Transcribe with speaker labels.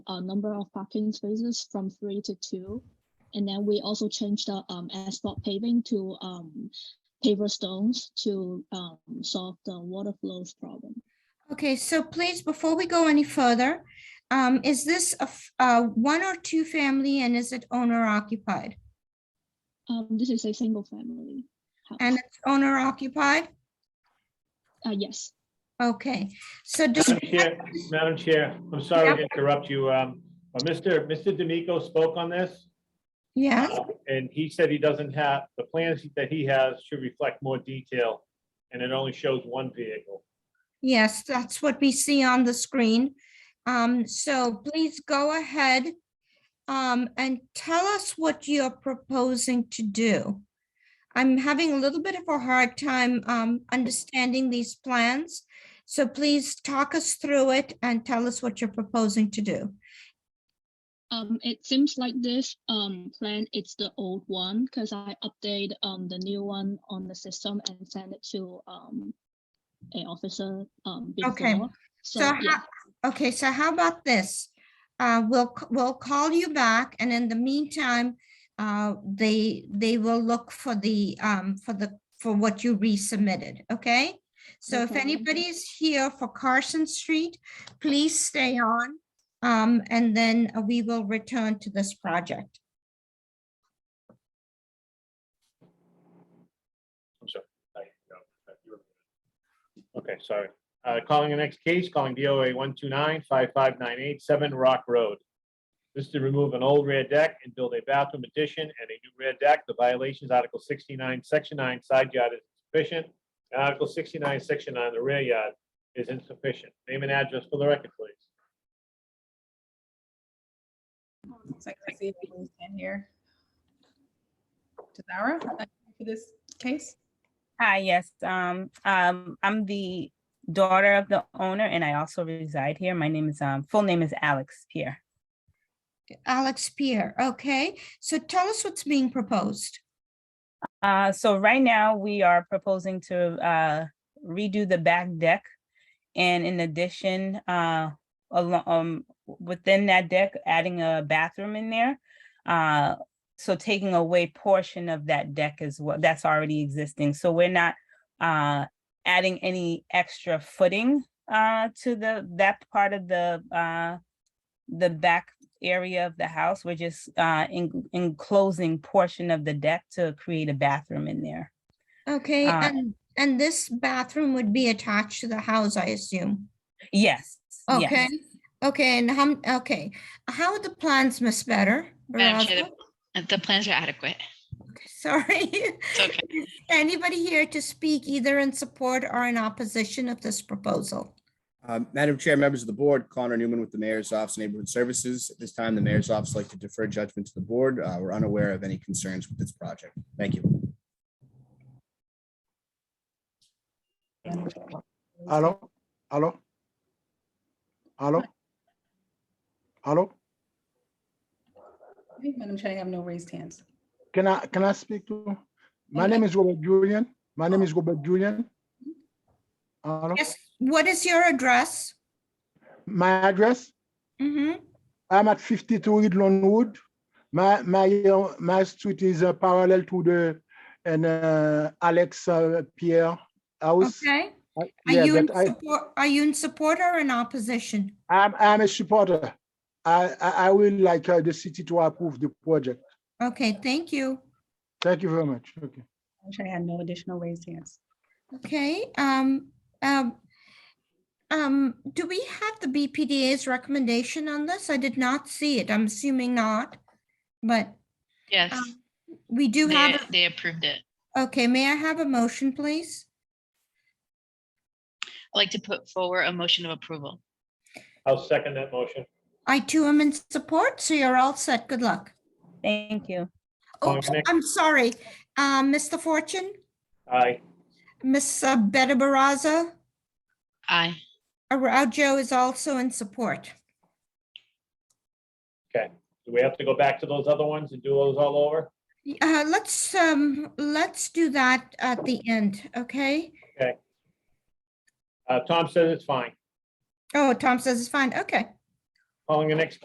Speaker 1: uh, number of parking spaces from three to two. And then we also changed the um, asphalt paving to um, paver stones to um, solve the water flows problem.
Speaker 2: Okay, so please, before we go any further, um, is this a, f- a one or two family and is it owner occupied?
Speaker 1: Um, this is a single family house.
Speaker 2: And it's owner occupied?
Speaker 1: uh, yes,
Speaker 2: Okay, so does,
Speaker 3: Madam Chair, Madam Chair, I'm sorry to interrupt you. Um, but Mr. Mr. D'Amico spoke on this,
Speaker 2: yeah,
Speaker 3: and he said he doesn't have, the plans that he has should reflect more detail, and it only shows one vehicle.
Speaker 2: yes, that's what we see on the screen. Um, so please go ahead um, and tell us what you're proposing to do. I'm having a little bit of a hard time um, understanding these plans. So please talk us through it and tell us what you're proposing to do.
Speaker 1: um, it seems like this um, plan it's the old one because I update um, the new one on the system and send it to um, a officer um, before.
Speaker 2: Okay.
Speaker 1: So,
Speaker 2: So
Speaker 1: yeah.
Speaker 2: how- Okay, so how about this? Uh, we'll, c- we'll call you back and in the meantime, uh, they, they will look for the, um, for the, for what you resubmitted, okay? So if
Speaker 1: Okay.
Speaker 2: anybody's here for Carson Street, please stay on. Um, and then we will return to this project.
Speaker 3: I'm sorry. I- no, uh, you were- Okay, sorry. Uh, calling the next case, calling DOA one two nine five five nine eight seven Rock Road. This is to remove an old rear deck and build a bathroom addition and a new rear deck. The violations, Article sixty-nine, Section nine, side yard is insufficient. And Article sixty-nine, Section nine, the rear yard is insufficient. Name and address for the record, please.
Speaker 4: It's like, let's see if we can hear. Denara, uh, for this case?
Speaker 5: Hi, yes, um, um, I'm the daughter of the owner and I also reside here. My name is, um, full name is Alex Pierre.
Speaker 2: Alex Pierre, okay? So tell us what's being proposed.
Speaker 5: Uh, so right now we are proposing to, uh, redo the back deck. And in addition, uh, along, um, within that deck, adding a bathroom in there. Uh, so taking away portion of that deck as well, that's already existing. So we're not, uh, adding any extra footing, uh, to the, that part of the, uh, the back area of the house. We're just uh en- enclosing portion of the deck to create a bathroom in there.
Speaker 2: Okay,
Speaker 5: Uh,
Speaker 2: and, and this bathroom would be attached to the house, I assume?
Speaker 5: Yes. yes.
Speaker 2: Okay, okay, and how, m- okay, how are the plans, Miss Better?
Speaker 6: Madam Chair,
Speaker 2: Barraza?
Speaker 6: the- The plans are adequate.
Speaker 2: Okay, Sorry.
Speaker 6: It's okay.
Speaker 2: Is Anybody here to speak either in support or in opposition of this proposal?
Speaker 7: Um, Madam Chair, members of the board, Connor Newman with the Mayor's Office of Neighborhood Services. At this time, the Mayor's Office would like to defer judgment to the board. Uh, We're unaware of any concerns with this project. Thank you.
Speaker 8: Aló, aló. Aló. Aló.
Speaker 4: Okay, Madam Chair, I have no raised hands.
Speaker 8: Can I, can I speak to? My
Speaker 4: Okay.
Speaker 8: name is Robert Julian. My name is Robert Julian. Aló.
Speaker 2: Yes, what is your address?
Speaker 8: My address,
Speaker 2: hmm
Speaker 8: I'm at 52 Redlawn Wood. My, my, uh, my street is uh, parallel to the, and uh, Alex uh, Pierre house.
Speaker 2: okay.
Speaker 8: Uh,
Speaker 2: Are
Speaker 8: Yeah,
Speaker 2: you in
Speaker 8: but I,
Speaker 2: support, are you in support or in opposition?
Speaker 8: I'm, I'm a supporter. I, I, I will like uh, the city to approve the project.
Speaker 2: Okay, thank you.
Speaker 8: Thank you very much. Okay.
Speaker 4: Madam Chair, I had no additional raised hands.
Speaker 2: Okay, um, um, um, do we have the BPDA's recommendation on this? I did not see it. I'm assuming not. But
Speaker 6: Yes,
Speaker 2: um, we do
Speaker 6: they,
Speaker 2: have,
Speaker 6: they approved it.
Speaker 2: a- okay, may I have a motion, please?
Speaker 6: I'd like to put forward a motion of approval.
Speaker 3: I'll second that motion.
Speaker 2: I too am in support, so you're all set. Good luck.
Speaker 5: Thank you.
Speaker 3: Calling
Speaker 2: Oops,
Speaker 3: next-
Speaker 2: I'm sorry. Uh, Mr. Fortune,
Speaker 3: Aye.
Speaker 2: Ms. uh, Betta Barazza,
Speaker 6: Aye.
Speaker 2: Araujo is also in support.
Speaker 3: Do we have to go back to those other ones and do those all over?
Speaker 2: Uh, let's, um, let's do that at the end, okay?
Speaker 3: Uh, Tom says it's fine.
Speaker 2: Oh, Tom says it's fine. Okay.
Speaker 3: Calling the next